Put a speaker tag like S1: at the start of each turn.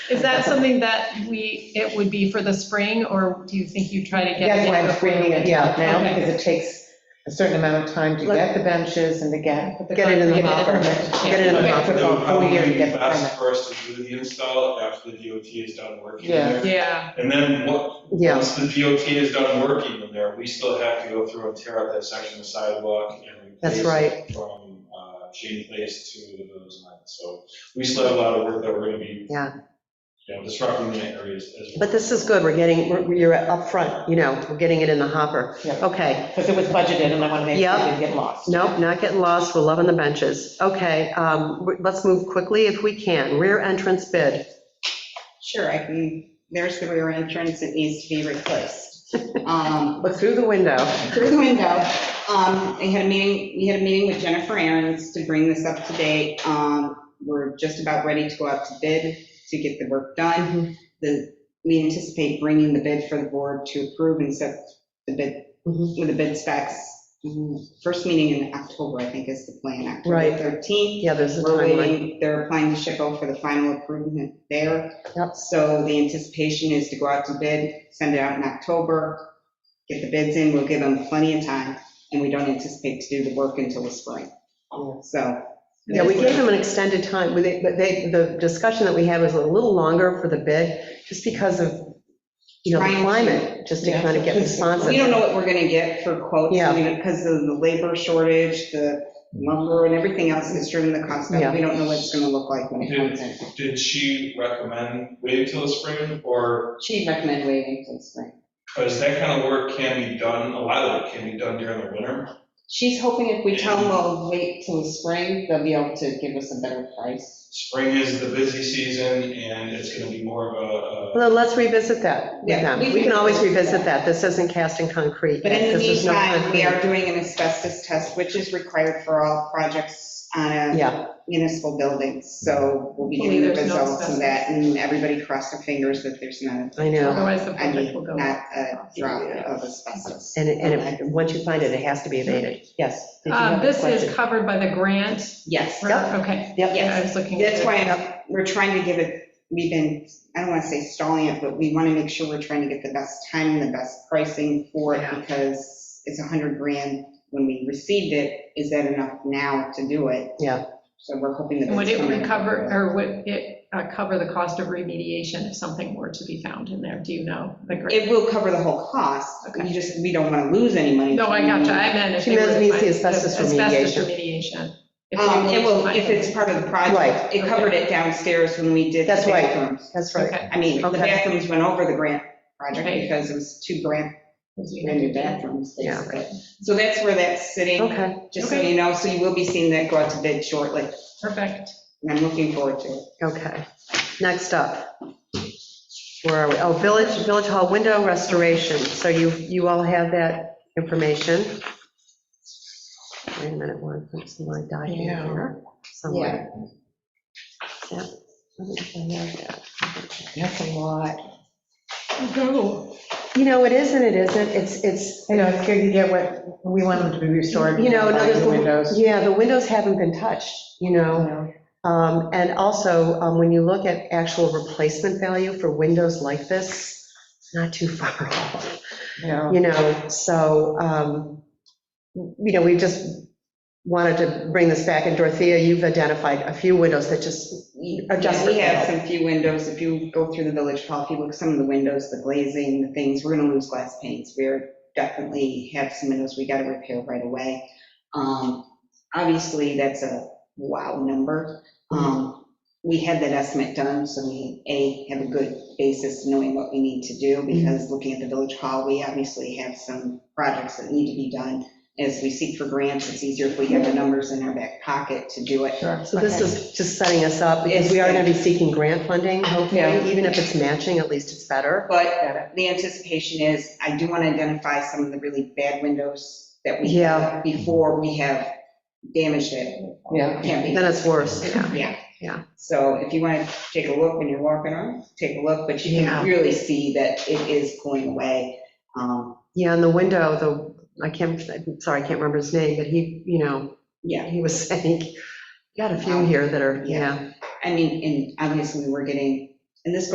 S1: Is that something that we, it would be for the spring, or do you think you try to get?
S2: That's why
S1: it
S2: I'm bringing it up now,
S1: Okay.
S2: because it takes a certain amount of time to get the benches and to get.
S1: But the
S3: Get it in the
S1: con-
S3: hopper.
S1: Yeah.
S3: Get it in the
S2: Okay.
S3: hopper.
S2: Took
S4: It would
S2: a whole year to
S4: probably be
S2: get the permit.
S4: best for us to do the install after the DOT is done working in
S2: Yeah.
S4: there.
S1: Yeah,
S4: And then what,
S3: Yeah,
S4: once the DOT is done working in there, we still have to go through and tear out that section of sidewalk and
S3: That's
S4: replace
S3: right.
S4: it from uh, Shady Place to those lines. So we still have a lot of work that we're going to be,
S3: Yeah.
S4: you know, disrupting the areas as well.
S3: but this is good, we're getting, we're- you're upfront, you know, we're getting it in the hopper.
S2: Yeah.
S3: Okay,
S2: Because it was budgeted, and I want to make sure it
S3: Yeah.
S2: didn't get lost.
S3: nope, not getting lost, we're loving the benches. Okay, um, let's move quickly if we can. Rear entrance bid.
S5: Sure, I can, there's the rear entrance, it needs to be replaced. Um,
S3: Look through the window.
S5: Through the window, um, I had a meeting, we had a meeting with Jennifer Aarons to bring this up to date. Um, We're just about ready to go out to bid to get the work done. The, we anticipate bringing the bid for the board to approve and set the bid,
S3: Mhm.
S5: with the bid specs. mm, First meeting in October, I think is the plan,
S3: Right.
S5: October 13th.
S3: Yeah, there's a
S5: We're
S3: timeline.
S5: waiting, they're applying to SHPO for the final improvement there.
S3: Yep.
S5: So the anticipation is to go out to bid, send it out in October, get the bids in, we'll give them plenty of time, and we don't anticipate to do the work until the spring. So.
S3: Yeah, we gave them an extended time, We- they- but they, the discussion that we had was a little longer for the bid, just because of, you know,
S5: Trying
S3: the
S5: to-
S3: climate, just to kind of get responsive.
S5: We don't know what we're gonna get for quotes,
S3: Yeah.
S5: I mean, because of the labor shortage, the lumber and everything else that's driven the cost
S3: Yeah.
S5: up. We don't know what it's gonna look like when it comes in.
S4: Did she recommend waiting till the spring, or,
S5: She'd recommend waiting till the spring.
S4: because that kind of work can be done, a lot of it can be done during the winter.
S5: She's hoping if we tell them we'll wait till the spring, they'll be able to give us a better price.
S4: Spring is the busy season, and it's going to be more of a- a
S3: Well, then let's revisit that with
S5: Yeah,
S3: them.
S5: we
S3: We can
S5: can
S3: always
S5: revisit
S3: revisit that.
S5: that.
S3: This isn't cast in concrete.
S5: But in
S3: yet,
S5: the
S3: 'cause there's no
S5: meantime, we
S3: concrete.
S5: are doing an asbestos test, which is required for all projects on a
S3: Yeah,
S5: municipal building. So we'll be getting the
S1: Hopefully there's no
S5: results of that, and everybody cross their fingers that there's not,
S3: I know.
S1: otherwise the
S5: I
S1: project
S5: mean, uh,
S1: will go.
S5: not a drop of asbestos.
S3: And, it- and it- once you find it, it has to be evaded. Yes. Did you have
S1: Um,
S3: a
S1: This
S3: question?
S1: is covered by the grant,
S5: Yes,
S3: Yep.
S1: okay,
S3: Yep.
S1: yeah, I was looking. at
S5: that's
S1: it.
S5: why I'm- we're trying to give it, we've been, I don't want to say stalling it, but we want to make sure we're trying to get the best timing, the best pricing for it
S1: Yeah.
S5: because it's a 100 grand when we received it. Is that enough now to do it?
S3: Yeah.
S5: So we're hoping that.
S1: And would
S5: it's
S1: it
S5: coming.
S1: recover, or would it uh, cover the cost of remediation if something were to be found in there? Do you know? the grant?
S5: It will cover the whole cost.
S1: Okay.
S5: We just, we don't want to lose any money.
S1: No, I gotcha, I meant if
S3: She
S1: they were
S3: meant
S1: to
S3: means the
S1: find-
S3: asbestos
S1: Asbestos remediation. If they
S5: Um,
S1: were
S5: It
S1: to
S5: will,
S1: find
S5: if it's part of the
S3: Right.
S5: project. It covered it downstairs when we did the
S3: That's right.
S5: bathrooms.
S3: That's
S1: something.
S3: right.
S1: Okay.
S5: I mean, the
S3: Okay.
S5: bathrooms went over the grant project
S1: Right.
S5: because it was two grant, brand new bathrooms,
S3: Yeah,
S5: basically. So that's where that's sitting,
S3: Okay.
S5: just so you know, so you will be seeing that go out to bid shortly,
S1: Perfect.
S5: and I'm looking forward to it.
S3: Okay, next up. Where are we? Oh, Village, Village Hall window restoration. So you, you all have that information. Wait a minute, one, that's my document here somewhere. Is that- I don't know if I have that.
S2: That's a lot.
S1: Go.
S3: You know, it is and it isn't. It's, it's,
S2: I know, it's good to get what, we want them to be restored.
S3: you know, in
S2: like
S3: other
S2: the windows.
S3: yeah, the windows haven't been touched, you know?
S2: you know.
S3: Um, And also, um, when you look at actual replacement value for windows like this, it's not too far off,
S2: Yeah.
S3: you know? So, um, you know, we just wanted to bring this back, and Dorothea, you've identified a few windows that just adjust.
S5: We have some few windows, if you go through the village hall, if you look at some of the windows, the glazing, the things, we're gonna lose glass panes. We're definitely have some windows we gotta repair right away. Um, Obviously, that's a wow number. Um, We had that estimate done, so we, A, have a good basis knowing what we need to do, because looking at the village hall, we obviously have some projects that need to be done. As we seek for grants, it's easier if we have the numbers in our back pocket to do it.
S2: Sure.
S3: So this is just setting us up, because we are going to be seeking grant funding,
S2: Yeah.
S3: hopefully, even if it's matching, at least it's better.
S5: But
S2: Got it.
S5: the anticipation is, I do want to identify some of the really bad windows that we
S3: Yeah.
S5: have before we have damaged it.
S2: Yeah.
S5: Can't be-
S3: Then it's worse, yeah.
S5: Yeah.
S3: Yeah.
S5: So if you want to take a look when you're walking around, take a look, but you
S3: Yeah.
S5: can really see that it is going away. Um,
S3: Yeah, and the window, the, I can't, I'm sorry, I can't remember his name, but he, you know,
S5: Yeah.
S3: he was saying, got a few here that are, yeah.
S5: I mean, and obviously, we're getting and this